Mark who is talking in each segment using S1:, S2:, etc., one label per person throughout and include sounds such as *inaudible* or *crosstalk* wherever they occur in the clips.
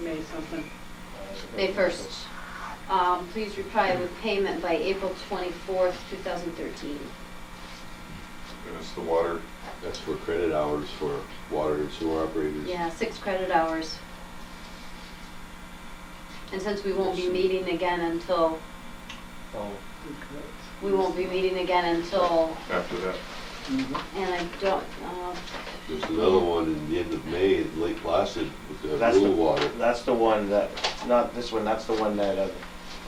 S1: May something.
S2: May first. Um, please reply with payment by April twenty-fourth, two thousand thirteen.
S3: And it's the water, that's for credit hours for water and sewer operators.
S2: Yeah, six credit hours. And since we won't be meeting again until,
S4: Oh,
S2: we won't be meeting again until,
S3: After that,
S1: Mhm.
S2: and I don't, uh,
S3: there's another one in the end of May at Lake Placid with the
S4: That's the,
S3: blue water.
S4: that's the one that, not this one, that's the one that, uh,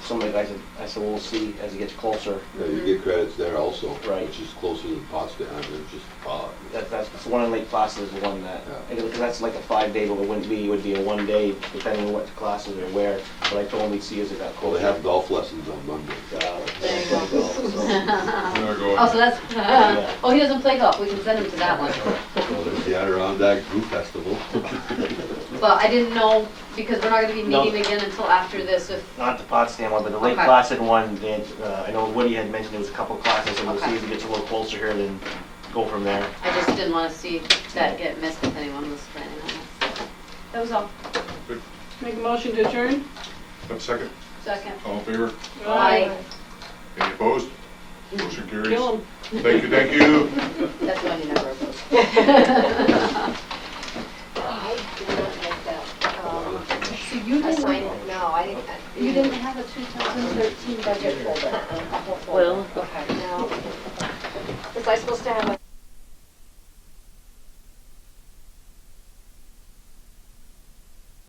S4: somebody, I said, I said, we'll see as it gets closer.
S3: Yeah, you get credits there also,
S4: Right.
S3: which is closer than Potsdam, I mean, it's just, uh,
S4: That, that's, the one in Lake Placid is the one that,
S3: Yeah.
S4: I think that's like a five day, but it wouldn't be, it would be a one day, depending on what classes are where. But I told him we'd see as it got
S3: well,
S4: closer.
S3: they have golf lessons on Monday.
S4: Uh,
S2: There you go. *laughs*
S4: so-
S2: oh, so that's, *laughs*
S4: Yeah.
S2: oh, he doesn't play golf, we can send him to that one.
S3: Well, there's the Adirondack Brew
S4: *laughs*
S3: Festival.
S2: But I didn't know, because we're not gonna be
S4: No.
S2: meeting again until after this, if,
S4: Not the Potsdam one, but the Lake
S2: Okay.
S4: Placid one, they, had, uh, I know Woody had mentioned there was a couple classes, and we'll see
S2: Okay.
S4: as it gets a little closer here, then go from there.
S2: I just didn't wanna see that get missed if anyone was planning on it. so. That was all.
S1: Make a motion to adjourn?
S5: One second,
S2: Second.
S5: all in favor?
S2: Aye.
S5: Any opposed? Motion carries.
S1: Kill 'em.
S5: Thank you, thank you.
S2: That's one you never oppose. I don't like that. Um,
S6: So you
S2: I
S6: didn't,
S2: signed it.
S6: no, I didn't,
S2: You didn't have a 2013 budget folder?
S6: Well. Okay, no. Was I supposed to have a